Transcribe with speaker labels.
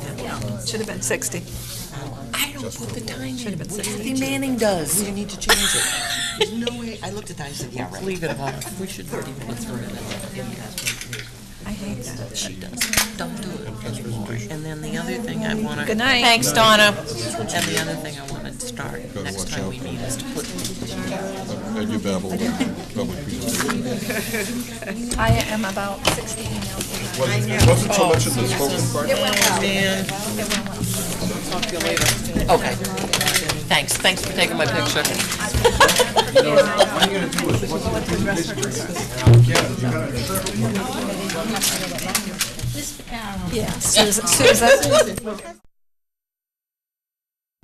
Speaker 1: Should have been 60.
Speaker 2: I don't put the time in.
Speaker 1: been
Speaker 2: We-
Speaker 1: sixty.
Speaker 2: Kathy Manning does. We need to change it. There's no way, I looked at that, I said, yeah, right. Leave it alone. We should put through
Speaker 1: I hate that.
Speaker 2: She does. Don't do it anymore. And then the other thing I want to.
Speaker 1: Good night.
Speaker 3: Thanks, Donna.
Speaker 2: And the other thing I want to start next time we meet is to put
Speaker 4: And you babble about public presentation.
Speaker 1: I am about 60 emails.
Speaker 4: Wasn't- It wasn't so much in the spoken part.
Speaker 2: Man. Talk to you later. Okay. Thanks, thanks for taking my picture.
Speaker 1: Yeah, Susan, Susan.